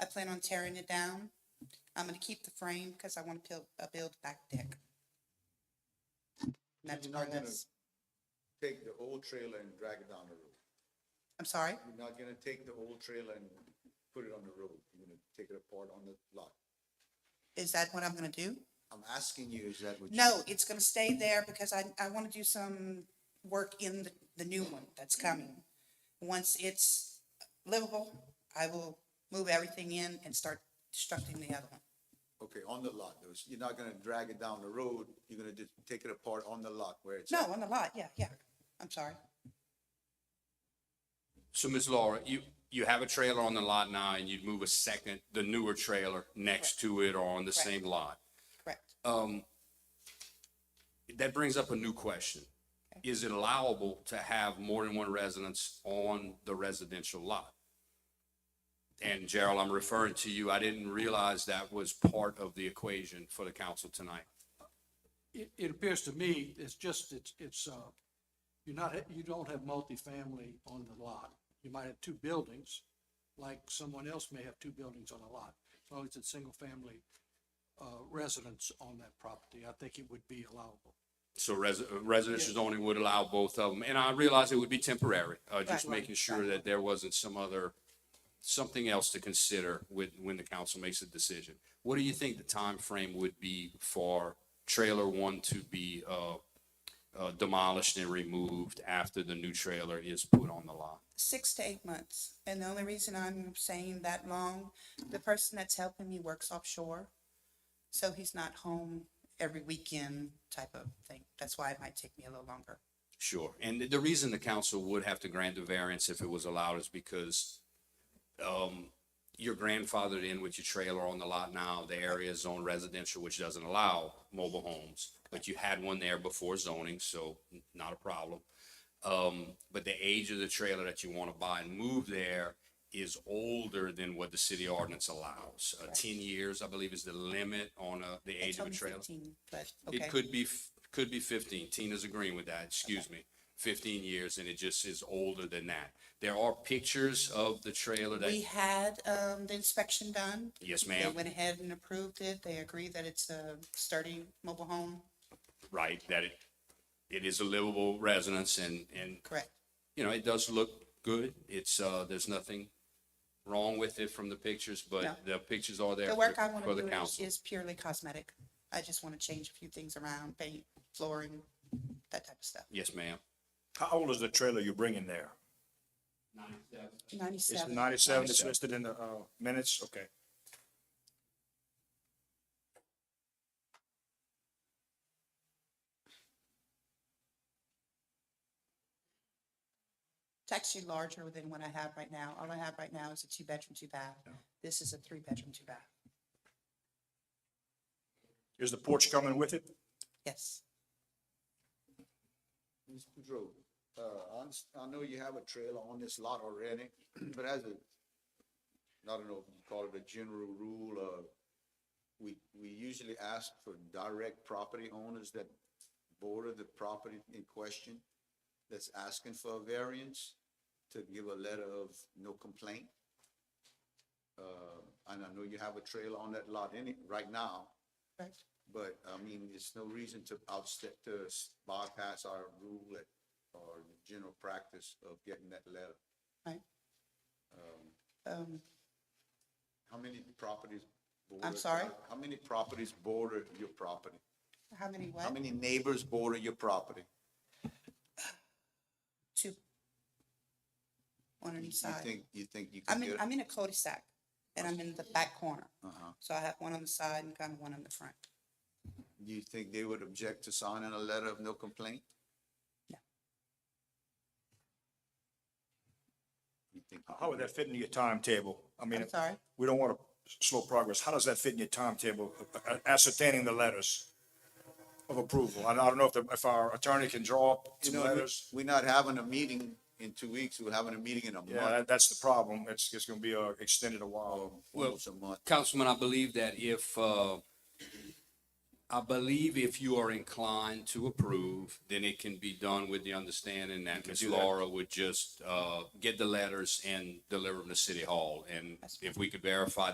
plan on tearing it down. I'm gonna keep the frame because I want to build, uh, build back deck. And That's You're part not of gonna this. Take the old trailer and drag it down the road. I'm sorry, You're not gonna take the old trailer and put it on the road. You're gonna take it apart on the lot. is that what I'm gonna do? I'm asking you, is that what? you- No, it's gonna stay there because I, I wanna do some work in the, the new one that's coming. Once it's livable, I will move everything in and start constructing the other one. Okay, on the lot. Those- You're not gonna drag it down the road. You're gonna just take it apart on the lot where it's. at. No, on the lot, yeah, yeah, I'm sorry. So Ms. Laura, you, you have a trailer on the lot now and you'd move a second, the newer trailer next to it or on the Correct. same lot. Correct. Um, that brings up a new question. Is it allowable to have more than one residence on the residential lot? And Gerald, I'm referring to you. I didn't realize that was part of the equation for the council tonight. It, it appears to me, it's just, it's, it's, uh, you're not, you don't have multifamily on the lot. You might have two buildings, like someone else may have two buildings on a lot. As long as it's single-family, uh, residence on that property, I think it would be allowable. So res- uh, residential zoning would allow both of them, and I realize it would be temporary, uh, just Right. making sure that there wasn't some other, something else to consider with, when the council makes a decision. What do you think the time frame would be for trailer one to be, uh, uh, demolished and removed after the new trailer is put on the lot? six to eight months. And the only reason I'm saying that long, the person that's helping me works offshore. So he's not home every weekend type of thing. That's why it might take me a little longer. Sure, and the reason the council would have to grant a variance if it was allowed is because um, you're grandfathered in with your trailer on the lot now, the area is zoned residential, which doesn't allow mobile homes, but you had one there before zoning, so n- not a problem. Um, but the age of the trailer that you want to buy and move there is older than what the city ordinance allows. Uh, ten years, I believe, is the limit on a, the They age of told a me trailer. 15, But, It okay, could be, f- could be fifteen. Tina's agreeing with that, excuse me. Fifteen years and it just is older than that. There are pictures of the trailer we that, had, um, the inspection done. yes They ma'am, went ahead and approved it. They agree that it's a sturdy mobile home. right, that it, it is a livable residence and, and, Correct. you know, it does look good. It's, uh, there's nothing wrong with it from the pictures, No. but the pictures are there The work I for- want for to the do is- council. is purely cosmetic. I just want to change a few things around, paint, flooring, that type of stuff. Yes ma'am. How old is the trailer you're bringing there? It's Ninety-seven. ninety-seven, it's listed in the, uh, minutes, okay. It's actually larger than what I have right now. All I have right now is a two-bedroom, two-bath. This is a three-bedroom, two-bath. Is the porch coming with it? Yes, Mr. Pedro, uh, I, underst- I know you have a trailer on this lot already, but as a, I don't know if you call it a general rule, uh, we, we usually ask for direct property owners that border the property in question that's asking for a variance to give a letter of no complaint. Uh, and I know you have a trailer on that lot any, right now, correct. but, I mean, there's no reason to outstep, to s- bypass our rule at- or the general practice of getting that letter. Right. Um, Um, How many properties? border- sorry? How many properties border your property? how many How what? many neighbors border your property? Two. One on You each you side. think, you think you can I'm in, get? I'm in a cul-de-sac and I'm in the back corner. Uh-huh. So I have one on the side and kind of one on the front. You think they would object to signing a letter of no complaint? No. You think? How would that fit into your timetable? I mean, I'm sorry. we don't want to slow progress. How does that fit in your timetable, uh, ascertaining the letters of approval? I don't I don't know if, the- if our attorney can draw up You some know, we- letters. we're not having a meeting in two weeks. We're having a meeting in a Yeah, month, that, that's the problem. It's, it's gonna be, uh, extended a while. almost a month. Councilman, I believe that if, uh, I believe if you are inclined to approve, then it can be done with the understanding that Ms. do that. Laura would just, uh, get the letters and deliver them to City Hall. And if we could verify